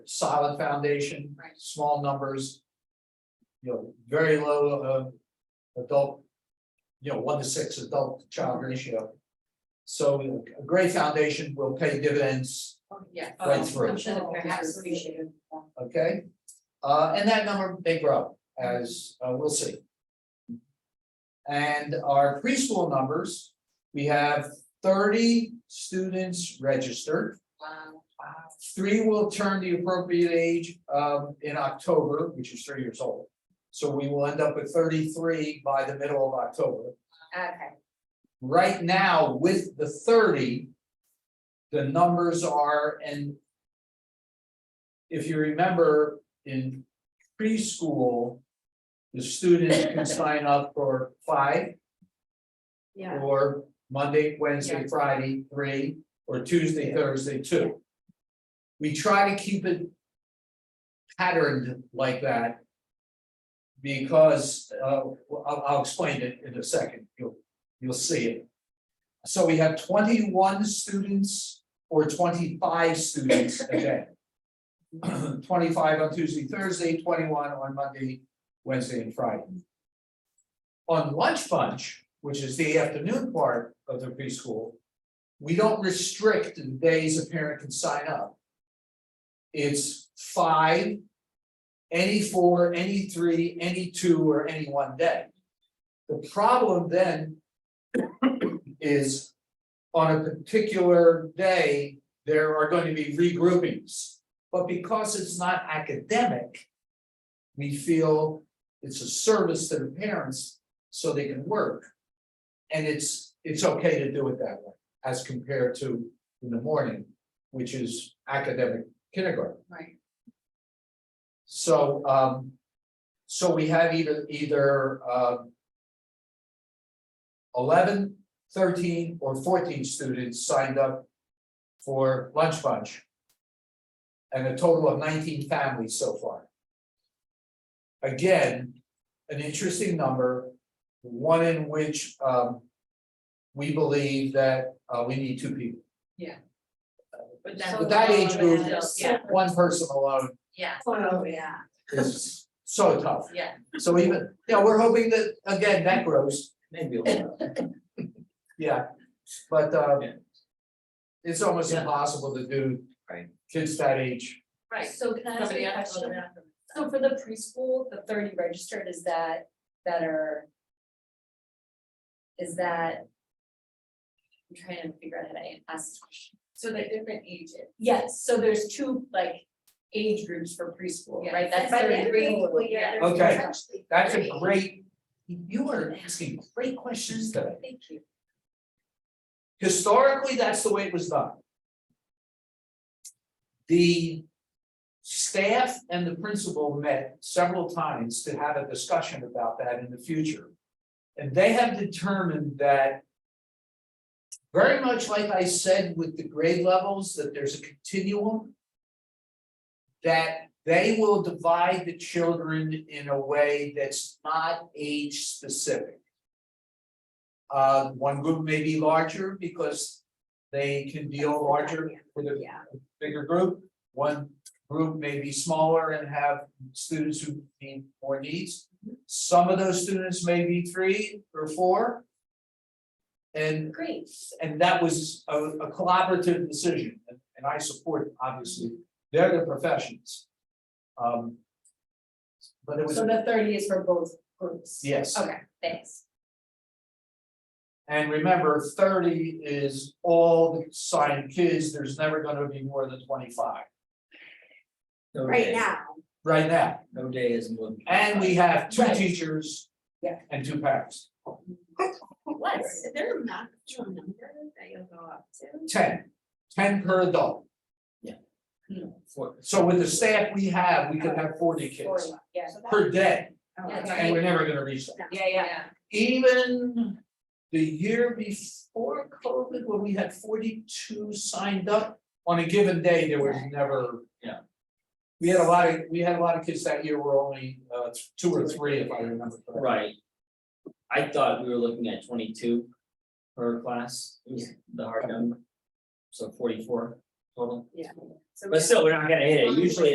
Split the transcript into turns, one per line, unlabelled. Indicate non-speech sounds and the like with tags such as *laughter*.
solid foundation.
Right.
Small numbers. You know, very low uh adult. You know, one to six adult to child ratio. So you know, a great foundation will pay dividends,
Yeah.
Right through.
I'm sure that perhaps we should.
okay? Uh, and that number may grow as, uh, we'll see. And our preschool numbers, we have thirty students registered.
Wow, wow.
Three will turn the appropriate age um in October, which is three years old. So we will end up with thirty-three by the middle of October.
Okay,
Right now, with the thirty. The numbers are and. If you remember in preschool. The students can sign up for five
yeah.
or Monday, Wednesday,
Yeah.
Friday, three, or Tuesday, Thursday, two. We try to keep it patterned like that. Because, uh, well, I'll, I'll explain it in a second, you'll, you'll see it. So we have twenty-one students or twenty-five students a day. *clears throat* Twenty-five on Tuesday, Thursday, twenty-one on Monday, Wednesday, and Friday. On lunch bunch, which is the afternoon part of the preschool. We don't restrict the days a parent can sign up. It's five. Any four, any three, any two, or any one day. The problem then. Is on a particular day, there are going to be regroupings. But because it's not academic. We feel it's a service to the parents so they can work. And it's, it's okay to do it that way, as compared to in the morning, which is academic kindergarten.
Right.
So, um, so we have either, either, um. Eleven, thirteen, or fourteen students signed up for lunch bunch. And a total of nineteen families so far. Again, an interesting number, one in which, um. We believe that, uh, we need two people,
But
with that age group,
Yeah,
one person alone
yeah, Oh,
Oh, yeah.
is so tough.
yeah.
So even, yeah, we're hoping that, again, that grows. Maybe a little. *laughs* Yeah, but uh.
Yeah.
It's almost
Yeah.
impossible to do.
Right.
Kids that age,
Right.
So can I ask
Somebody
you a
else will go
question?
down from
So for the preschool, the thirty registered, is that, that are? Is that? I'm trying to figure out how to ask this question.
So they're different ages.
Yes, so there's two like age groups for preschool,
Yeah.
right? That's
By the end
thirty.
of the school year,
there's Okay. that's a great, you are asking great questions today.
Thank you.
Historically, that's the way it was done. The staff and the principal met several times to have a discussion about that in the future. And they have determined that very much like I said with the grade levels, that there's a continuum that they will divide the children in a way that's not age specific. Uh, one group may be larger because they can deal larger with a
Yeah.
bigger group. One group may be smaller and have students who need more needs. Some of those students may be three or four. And,
Great.
and that was a, a collaborative decision, and- and I support, obviously, they're the professions. Um. But it was,
So the thirty is for both groups.
yes.
Okay, thanks.
And remember, thirty is all the signed kids, there's never gonna be more than twenty-five,
No
Right
day-
now,
right now,
No day is more. than
and we have two
Right.
teachers.
Yeah.
And two parents,
What's-
is there a maximum number that you'll go up to?
10, 10 per adult,
four.
so with the staff we have, we could have forty kids
Four, yeah.
per day,
Yeah,
Yeah.
and we're never gonna reach that.
Yeah, yeah.
Even the year before COVID, when we had forty-two signed up, on a given day, there was never.
Yeah.
We had a lot of, we had a lot of kids that year, were only uh two or three, if I remember correctly.
Right. I thought we were looking at twenty-two per class, is the hard number. So forty-four total,
Yeah. So we
but still, we're not gonna hit it, usually